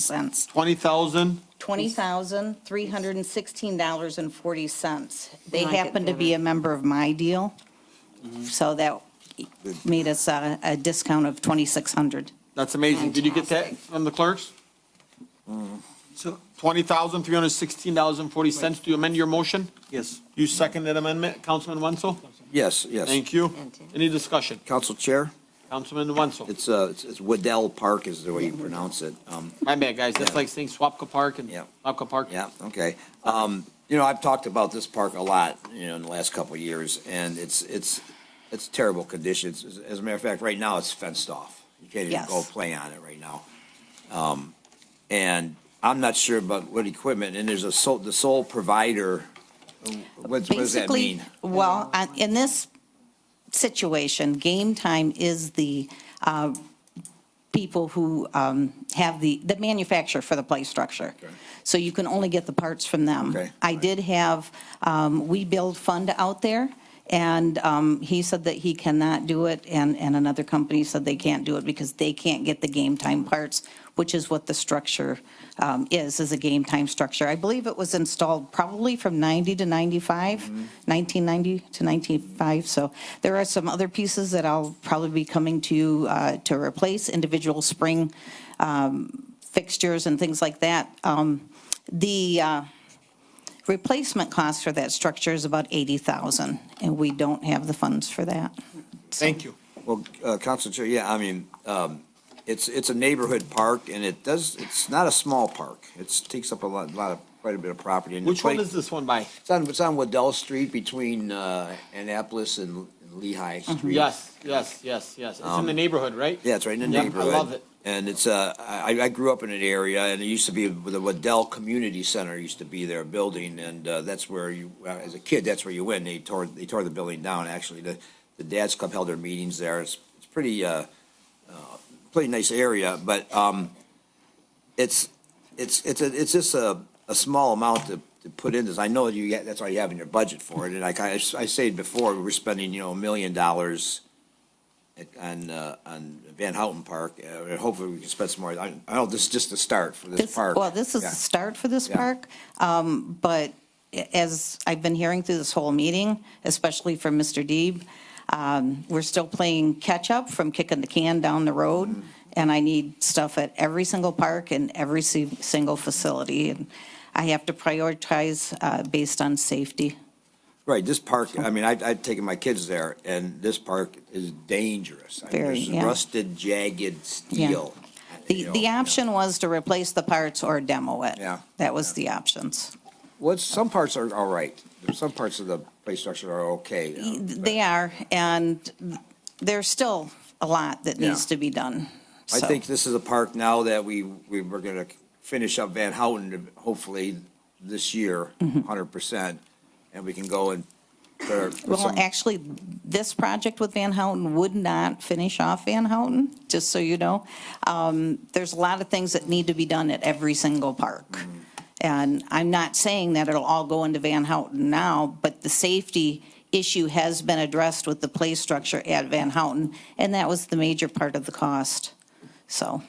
cents. Twenty thousand? $20,316.40. They We like it happen to be a member of my deal, Mm-hmm. so that made us a a discount of 2,600. That's amazing. Did you get that from the clerks? So, Twenty thousand, three hundred sixteen dollars and forty cents. Do you amend your motion? yes, You second that amendment, Councilman Wenzel? Yes, yes. Thank you. And- Any discussion? Council Chair, Councilman Wenzel? it's, uh, it's- it's Waddell Park is the way you pronounce it. Um, My bad, guys. That's Yeah. like saying Swapka Park and Yeah. Swapka Park. yeah, okay. Um, you know, I've talked about this park a lot, you know, in the last couple of years, and it's, it's, it's terrible conditions. As- As a matter of fact, right now, it's fenced off. You can't even Yes. go play on it right now. Um, and I'm not sure about what equipment, and there's a sole, the sole provider, what, what does that Basically, mean? Well, uh, in this situation, game time is the uh, people who um, have the, the manufacturer for the play structure. Okay. So you can only get the parts from them. Okay. Um, I did have, um, We Build Fund out there, and um, he said that he cannot do it, and, and another company said they can't do it because they can't get the game time parts, which is what the structure um, is, is a game time structure. I believe it was installed probably from 90 to 95, 1990 to 95, so there are some other pieces that I'll probably be coming to you uh, to replace, individual spring um, fixtures and things like that. Um, The, uh, replacement cost for that structure is about 80,000, and we don't have the funds for that. Thank you. Well, uh, Council Chair, yeah, I mean, um, it's, it's a neighborhood park and it does, it's not a small park. It's, takes up a lot, lot of, quite a bit of property. and the Which one play- is this one by? It's on, it's on Waddell Street between, uh, Annapolis and Lehigh Street. Mm-hmm. Yes, yes, yes, yes. It's in the neighborhood, right? Um, Yeah, it's right in the Yeah, I neighborhood. love it. And it's, uh, I, I grew up in an area and it used to be, the Waddell Community Center used to be their building and, uh, that's where you, uh, as a kid, that's where you went. They tore, they tore the building down, actually. The, the Dad's Club held their meetings there. It's, it's pretty, uh, pretty nice area, but um, it's, it's, it's, a- it's just a, a small amount to, to put in this. I know you, get- that's all you have in your budget for it, and like I, I said before, we were spending, you know, a million dollars at- on, uh, on Van Houten Park, uh, and hopefully we can spend some more. I, I know this is just the start for this This- park. Well, this is the Yeah. start for this Yeah. park, um, but as I've been hearing through this whole meeting, especially from Mr. Deeb, um, we're still playing catch-up from kicking the can down the road, Mm-hmm. and I need stuff at every single park and every si- single facility, and I have to prioritize uh, based on safety. Right, this park, I mean, I, I've taken my kids there, and this park is dangerous. I mean, Very, there's yeah. Rusted, jagged steel. you The, know, the yeah. option was to replace the parts or demo it. Yeah. That was the options. Well, it's- some parts are all right. Some parts of the play structure are okay. uh, but They are, and there's still a lot that needs Yeah. to be done. I So, think this is a park now that we, we were gonna finish up Van Houten, hopefully this year, Mm-hmm. hundred percent. And we can go and put our- put Well, some- actually, this project with Van Houten would not finish off Van Houten, just so you know. Um, There's a lot of things that need to be done at every single park. Mm-hmm. And I'm not saying that it'll all go into Van Houten now, but the safety issue has been addressed with the play structure at Van Houten, and that was the major part of the cost. So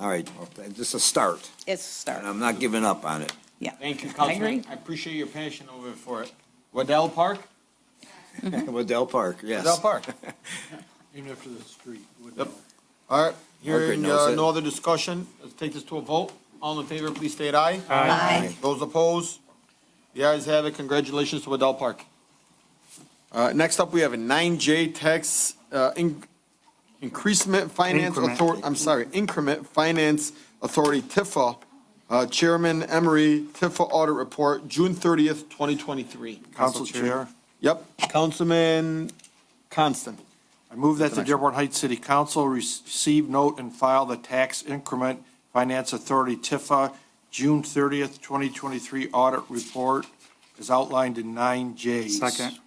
all right, well, just a start. it's a start. And I'm not giving up on it. Yeah. Thank you, I agree. Councilman. I appreciate your passion over it for it. Waddell Park? Waddell Park, yes. Waddell Park. named after the street. Woodlawn. Yep. All right, hearing knows uh, it. no other discussion, let's take this to a vote. All in favor, please state aye. Aye. Those opposed? The ayes have it. Congratulations to Waddell Park. Uh, Next up, we have a 9J tax uh, in- increasement finance Increment. authority, I'm sorry, increment finance authority, Tifa. Uh, Chairman Emery, Tifa audit report, June 30th, 2023. Council Chair, Yep, Councilman Constant. I move that the Dearborn Heights City Council receive, note, and file the Tax Increment Finance Authority TIFA June 30th, 2023 audit report as outlined in 9J. Second.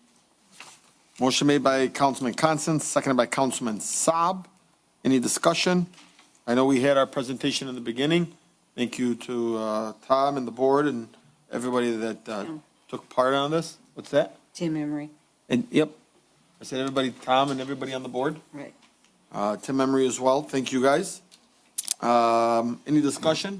Motion made by Councilman Constance, seconded by Councilman Saab. Any discussion? I know we had our presentation in the beginning. Thank you to uh, Tom and the board and everybody that uh, took part on this. What's that? Tim Emery, And, yep, I said everybody, Tom and everybody on the board. right. Uh, Tim Emery as well. Thank you, guys. Um, Any discussion?